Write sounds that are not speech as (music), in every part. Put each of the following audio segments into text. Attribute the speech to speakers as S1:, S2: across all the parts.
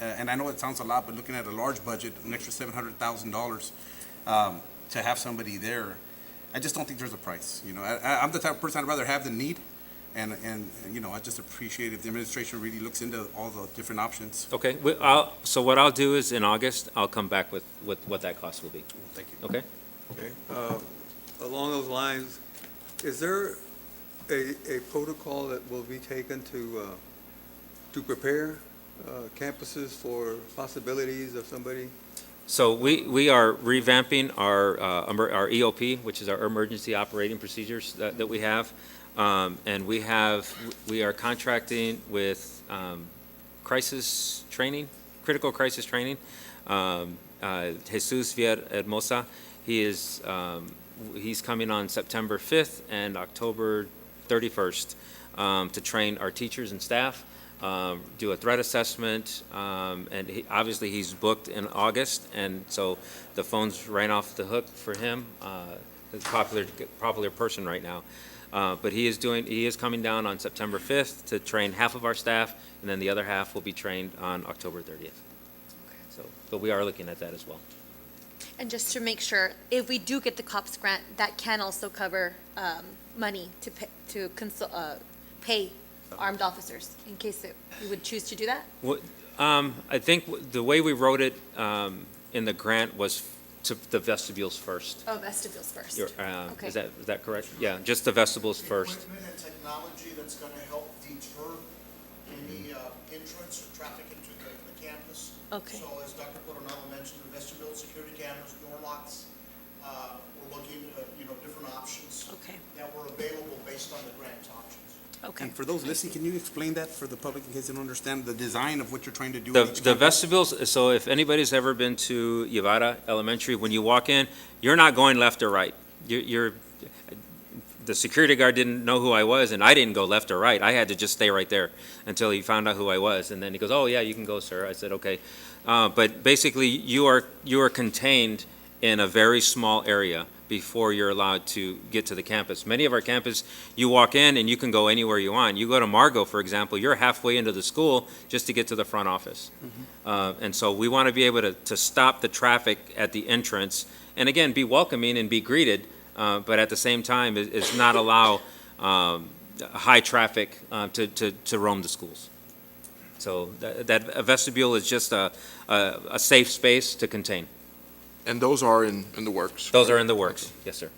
S1: uh, and I know it sounds a lot, but looking at a large budget, an extra seven hundred thousand dollars, um, to have somebody there, I just don't think there's a price, you know, I, I- I'm the type of person, I'd rather have than need, and, and, you know, I just appreciate if the administration really looks into all the different options.
S2: Okay, we, I'll, so what I'll do is in August, I'll come back with, with what that cost will be,
S1: Thank you.
S2: okay?
S3: Okay, uh, along those lines, is there a, a protocol that will be taken to, uh, to prepare uh, campuses for possibilities of somebody?
S2: So we, we are revamping our, uh, emer- our EOP, which is our emergency operating procedures that, that we have. Um, and we have, we are contracting with, um, crisis training, critical crisis training. Um, uh, Jesus Vier Hermosa, he is, um, w- he's coming on September fifth and October thirty-first, um, to train our teachers and staff um, do a threat assessment, um, and he, obviously, he's booked in August, and so the phone's ran off the hook for him, uh, a popular, popular person right now. Uh, but he is doing, he is coming down on September fifth to train half of our staff, and then the other half will be trained on October thirtieth. So, but we are looking at that as well.
S4: And just to make sure, if we do get the COPS grant, that can also cover um, money to pay, to consult, uh, pay armed officers in case that you would choose to do that?
S2: Um, I think w- the way we wrote it, um, in the grant was f- to the vestibules first.
S4: Oh, vestibules first.
S2: Your- uh,
S4: Okay.
S2: is that, is that correct? Yeah, just the vestibules first.
S5: Equipment and technology that's going to help deter any uh, entrance or traffic into the the campus.
S4: Okay.
S5: So as Dr. Coronado mentioned, the vestibule security cameras, door locks, uh, we're looking at, you know, different options
S4: Okay,
S5: that were available based on the grant options.
S4: okay.
S1: And for those listening, can you explain that for the public in case they don't understand the design of what you're trying to do?
S2: The,
S1: in each
S2: the
S1: campus?
S2: vestibules, so if anybody's ever been to Yavata Elementary, when you walk in, you're not going left or right. You're, you're, the security guard didn't know who I was, and I didn't go left or right. I had to just stay right there until he found out who I was, and then he goes, "Oh, yeah, you can go, sir." I said, "Okay." Uh, but basically, you are, you are contained in a very small area before you're allowed to get to the campus. Many of our campus, you walk in and you can go anywhere you want. You go to Margot, for example, you're halfway into the school just to get to the front office. Uh, And so we want to be able to, to stop the traffic at the entrance, and again, be welcoming and be greeted, uh, but at the same time, is- is not allow um, high traffic uh, to, to, to roam the schools. So that, that a vestibule is just a, a, a safe space to contain.
S6: And those are in, in the works.
S2: Those are in the works, yes, sir.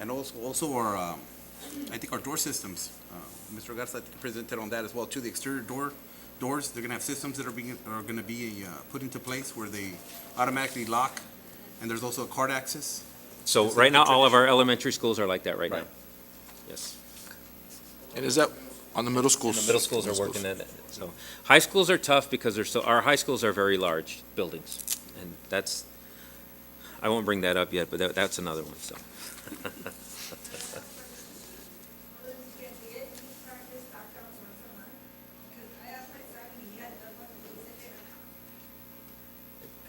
S1: And also, also our, um, I think our door systems, uh, Mr. Garza I think, presented on that as well, too, the exterior door, doors, they're gonna have systems that are being, are gonna be uh, put into place where they automatically lock, and there's also a card access.
S2: So
S1: Is that
S2: right now,
S1: the
S2: all of our elementary schools are like that right now.
S1: Right.
S2: Yes.
S6: And is that on the middle schools?
S2: And the middle schools are working at it, so. High schools are tough because they're so, our high schools are very large buildings, and that's, I won't bring that up yet, but that, that's another one, so.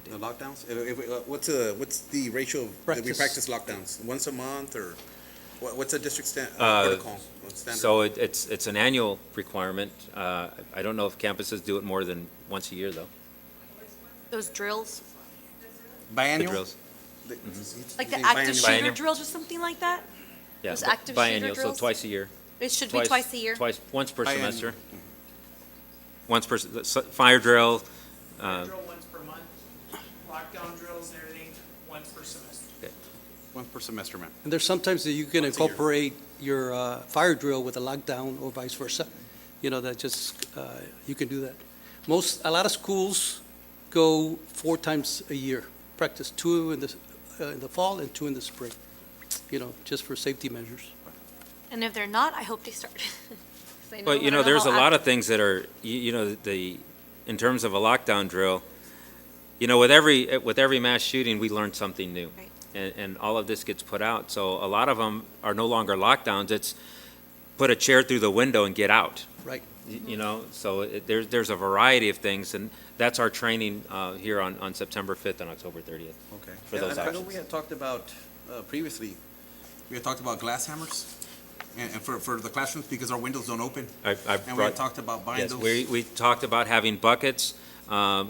S1: The lockdowns, Uh, if we- uh, what's the, what's the ratio of- that we practice
S2: Practice.
S1: lockdowns? Once a month, or what- what's the district stand,
S2: Uh,
S1: protocol? or standard?
S2: So it, it's, it's an annual requirement. Uh, I don't know if campuses do it more than once a year, though.
S4: Those drills,
S2: The
S1: Biannual?
S2: drills,
S1: The- he's-
S4: like
S1: he's saying
S4: the active
S1: biannual.
S2: Biennial.
S4: shooter drills or something like that?
S2: yeah.
S4: Those active shooter
S2: biennial, so
S4: drills?
S2: twice a year.
S4: It should be twice a year?
S2: Twice, once per
S1: Biennial.
S2: semester. Once per, se- s- fire drill, uh,
S7: Drill once per month, lockdown drills and everything, once per semester.
S1: One per semester, ma'am.
S8: And there's sometimes that you can
S1: Once a year.
S8: incorporate your uh, fire drill with a lockdown or vice versa. You know, that just, uh, you can do that. Most, a lot of schools go four times a year, practice two in the, uh, in the fall and two in the spring, you know, just for safety measures.
S4: And if they're not, I hope they start. (laughs) 'Cause I
S2: But, you
S4: I
S2: know, there's a
S4: how
S2: lot
S4: active-
S2: of things that are, you, you know, the, in terms of a lockdown drill, you know, with every, with every mass shooting, we learn something new.
S4: Right.
S2: And, and all of this gets put out, so a lot of them are no longer lockdowns, it's put a chair through the window and get out.
S8: Right.
S2: Y- You know, so it, there's, there's a variety of things, and that's our training, uh, here on, on September fifth and October thirtieth.
S1: Okay.
S2: For
S1: Yeah,
S2: those
S1: I- I know
S2: options.
S1: we had talked about, uh, previously, we had talked about glass hammers, and, and for, for the classrooms, because our windows don't open.
S2: I, I
S1: And we had
S2: brought,
S1: talked about buying
S2: yes,
S1: those.
S2: we, we talked about having buckets, um,